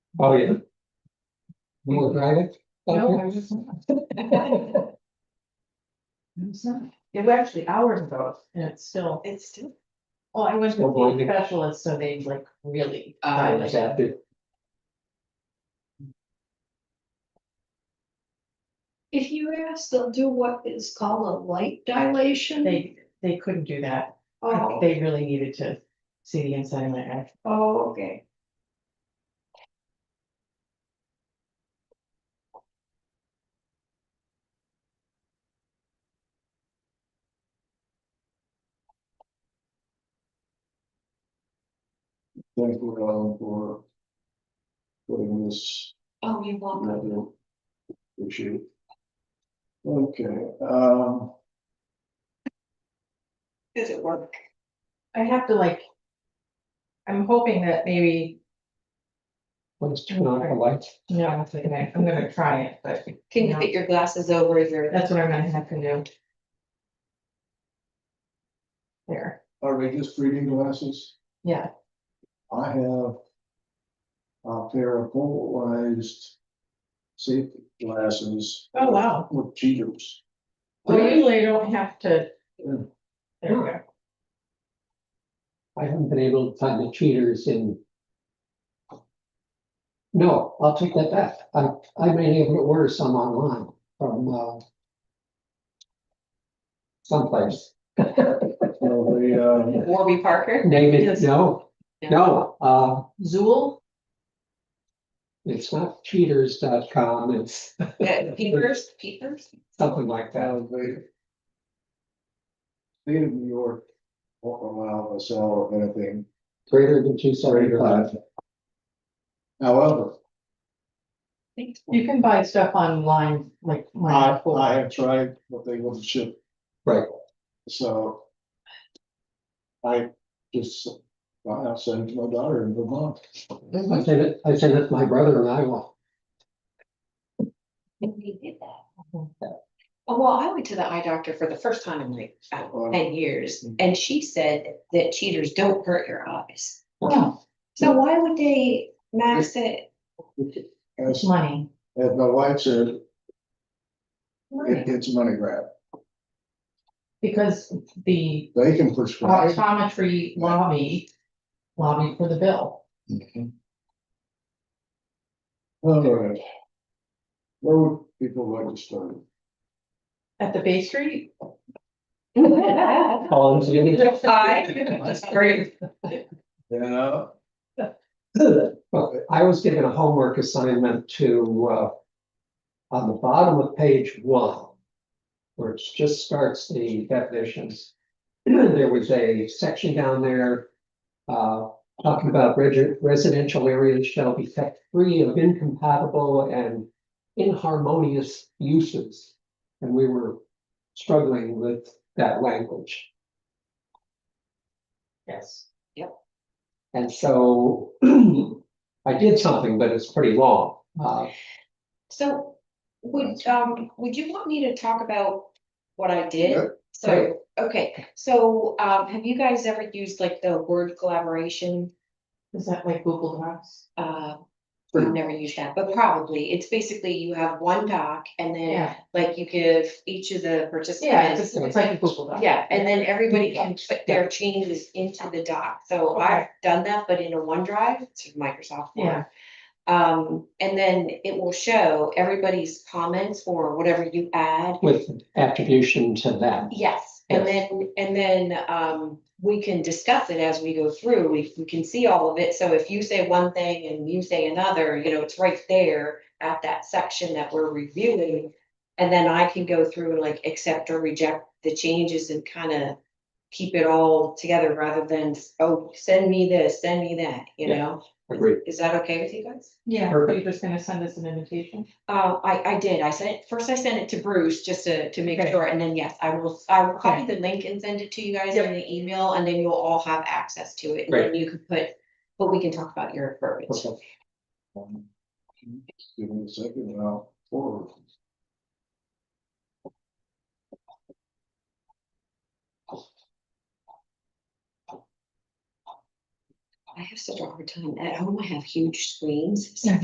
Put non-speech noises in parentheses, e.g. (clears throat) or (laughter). Oh, yeah. You wanna drive it? No, I (laughs) was not. It's not. It was actually hours ago, and it's still, It's still. well, I went to Still blinding. the specialist, so they like really. uh, I dialed was it. at the, If you ask, they'll do what is called a light dilation. They, they couldn't do that, I Oh, think they really needed to see the inside of my eye. oh, okay. Thank you, Alan, for putting this Oh, you want, another issue. Okay, um, does it work? I have to like. I'm hoping that maybe, let's turn on the lights. no, I'm not gonna, I'm gonna try it, but. Can you no, fit your glasses over your? That's what I'm gonna have to do. There, are they just reading glasses? yeah, I have a pair of polarized safety glasses oh, wow, with cheaters. well, usually I don't have to. Yeah. There we go. I haven't been able to find the cheaters in. No, I'll take that back. I, I may be able to order some online from, uh, someplace. So they, uh, Warby Parker? Name it, Yes. no, Yeah. no, uh, (laughs) Zool, it's not cheaters.com, it's Yeah, peepers, peepers? something like that. uh, they state of New York won't allow us out of anything Greater than two greater seventy-five. than. However, Thanks. you can buy stuff online, like. I, mine. I have tried, but they wouldn't ship. Right. So. I just, I sent it to my daughter in Vermont. I said it, I said it to my brother in Iowa. And we did that. Oh, well, I went to the eye doctor for the first time in like I don't know, Wow. ten years, and she said that cheaters don't hurt your eyes. Yeah, So why would they max Mm-hmm. it? As, money. as my wife said, it, (laughs) Right. it's a money grab. Because the They can prescribe. optometry lobby, lobby for the bill. All right. Where would people like to start? At the Bay (laughs) Street? All I'm saying is- That's great. Yeah. Well, I was given a homework assignment to, uh, on the bottom of page one, where it just starts the definitions. (clears throat) There was a section down there, uh, talking about regi- residential areas shall be kept free of incompatible and inharmonious uses. And we were struggling with that language. Yes. And so (clears throat) I did something, but it's pretty long. Uh, So would, um, would you want me to talk about what I did? Yeah. So, okay, so, um, have you guys ever used like the word collaboration? Is that like Google Docs? Uh, Hmm. I've never used that, but probably, it's basically you have one doc and then Yeah, like you give each of the yeah, it's, participants. it's like a Google Doc. Yeah, and then everybody can Docs, put their changes into the doc, so Okay. I've done that, but in a OneDrive, it's a Microsoft. one. Yeah. Um, and then it will show everybody's comments or whatever you add, with attribution to them. Yes, and then, and then, um, we can discuss it as we go through, we, we can see all of it, so if you say one thing and you say another, you know, it's right there at that section that we're reviewing. And then I can go through and like accept or reject the changes and kind of keep it all together rather than, oh, send me this, send me that, you Yeah, know? agreed. Is that okay with you guys? Yeah, so you're Perfect. just gonna send us an invitation? Uh, I, I did, I sent, first I sent it to Bruce just to, to make Okay. sure, and then yes, I will, I will copy the link and send it to you guys in the email, and then you'll all have access to it, and then you can put, but we can talk about your verbiage. Okay. Um, Give me a second and I'll forward. I have such a hard time, at home I have huge screens, so